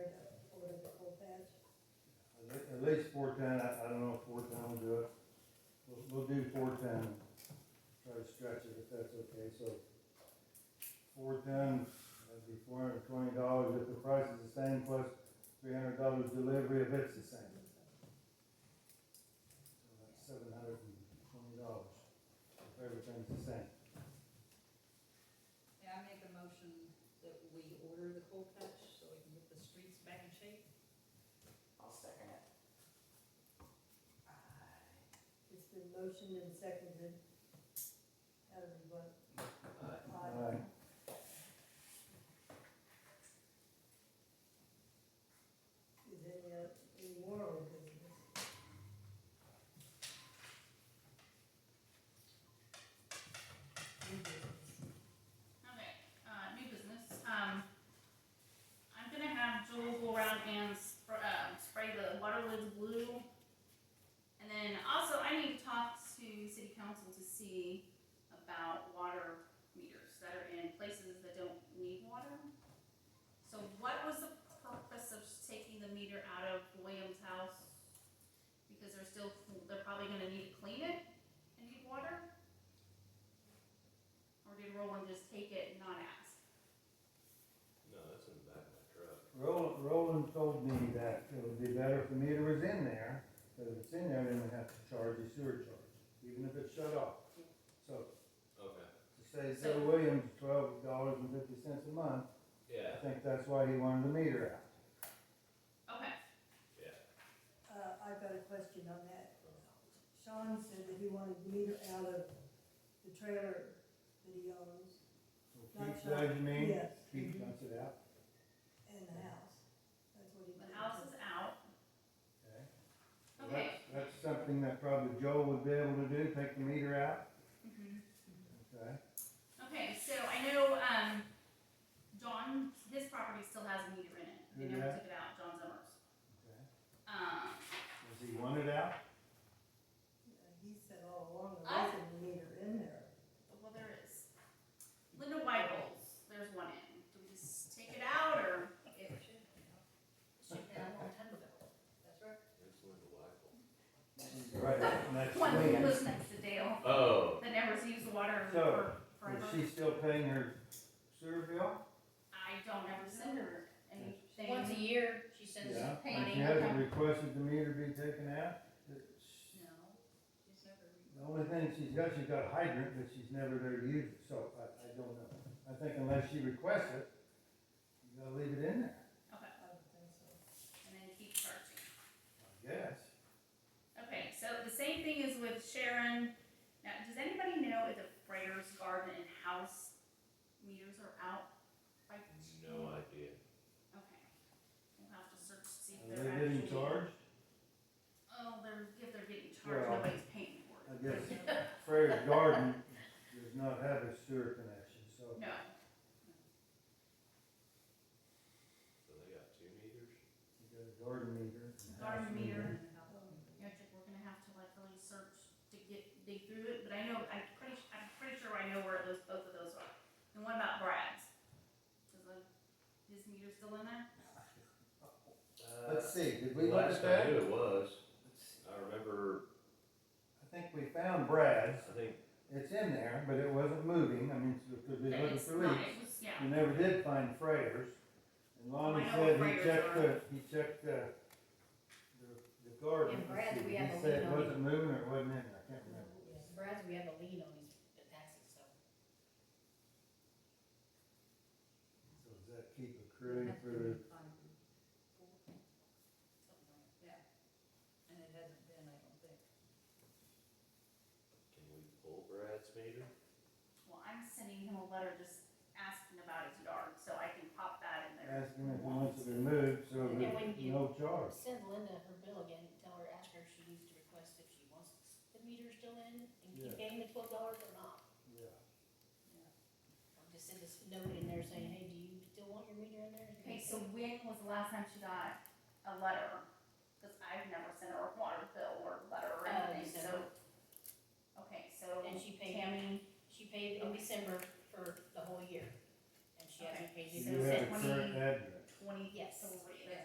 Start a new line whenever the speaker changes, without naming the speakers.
at least four ten, I, I don't know if four ten will do it. We'll, we'll do four ten, try to stretch it if that's okay, so. Four ten, that'd be four hundred and twenty dollars if the price is the same plus three hundred dollars delivery if it's the same. So that's seven hundred and twenty dollars if everything's the same.
May I make a motion that we order the cold patch so we can get the streets back in shape?
I'll second it.
It's been motioned and seconded. How do we vote? Aye.
Aye.
Is there any, oth- any more on business? New business.
Okay, uh, new business, um, I'm gonna have Joel go around and spr- uh, spray the water lids blue. And then also I need to talk to city council to see about water meters that are in places that don't need water. So what was the purpose of taking the meter out of William's house? Because they're still, they're probably gonna need to clean it and need water? Or did Roland just take it and not ask?
No, that's in the back of my truck.
Roland, Roland told me that it would be better if the meter was in there, but if it's in there, then we have to charge a sewer charge, even if it's shut off. So, to
Okay.
say Bill Williams twelve dollars and fifty cents a month, I
Yeah,
think that's why he wanted the meter out.
Okay,
yeah.
Uh, I've got a question on that. Sean said that he wanted the meter out of the trailer that he owns.
So
Not
Keith,
Sean.
does you mean?
Yes.
Keith dumps it out,
And the house. That's what he.
the house is out.
okay? Well,
Okay.
that's- That's something that probably Joel would be able to do, take the meter out,
Mhm.
okay?
Okay, so I know, um, John, his property still has a meter in it. They
Who
never
that?
took it out, John Summers.
Okay.
Um,
Does he want it out?
He said all along, there
I-
wasn't a meter in there.
well, there is. Linda Whitehall's, there's one in. Do we just take it out or?
It should, should be a long time ago. That's right.
It's in the light.
Right, and that's
One
me.
that lives next to Dale
Oh.
that never sees the water
So,
for
Is
forever.
she still paying her sewer bill?
I don't ever send her anything.
Once a year, she sends
Yeah, and
painting.
she hasn't requested the meter be taken out. The
No.
She's never re-
only thing she's got, she's got a hydrant, but she's never there to use it, so I, I don't know. I think unless she requests it, you gotta leave it in there,
Okay,
I don't think so.
and then keep charging.
I guess.
Okay, so the same thing is with Sharon. Now, does anybody know if the Freighters Garden and House meters are out? by
No idea.
Okay. We'll have to search to see if
Are
they're
they
actually.
getting charged?
Oh, they're, if they're getting charged,
Well,
nobody's paying for
I
it.
guess Frey's Garden does not have a sewer connection, so
No,
So they got two meters?
you got a garden meter. and a house
garden meter. Yeah, I think we're gonna have to like really search to get, dig through it, but I know, I'm pretty, su- I'm pretty sure I know where those, both of those are. And what about Brad's? Is the, his meter still in there?
Let's see, did we look
Uh,
at
Last I
that?
knew it was.
Let's see.
I remember,
I think we found Brad's,
I think,
it's in there, but it wasn't moving, I mean, because we looking
It's
for
not-
leaks.
it was- Yeah,
We never did find freighters, and Lonnie
I know
said
what
he
freighters
checked
are.
the, he checked the, the, the garden.
And Brad,
He
we have a
said it
lien on
wasn't moving or it wasn't in, there. I can't remember.
Brad's, we have a lien on his the taxes, so.
So does that keep accruing for,
Yeah, and it hasn't been, I don't think.
can we pull Brad's meter?
well, I'm sending him a letter just asking about his yard, so I can pop that in there.
asking if he wants it removed, so
And then when
that
you-
no charge.
Send Linda her bill again, and tell her, ask her if she needs to request if she wants the meter still in, and
Yeah.
keep paying the twelve dollars or not.
Yeah.
Or just send this note in there saying, hey, do you still want your meter in there?
Okay, so when was the last time she got a letter? Cause I've never sent her a water bill or letter or
Uh,
anything, so.
December.
Okay, so
And she paid,
Tammy,
she paid in December for the whole year, and she hasn't paid
Do
it
So
You have a
when
current
he-
address.
twenty,
Yes.
yes,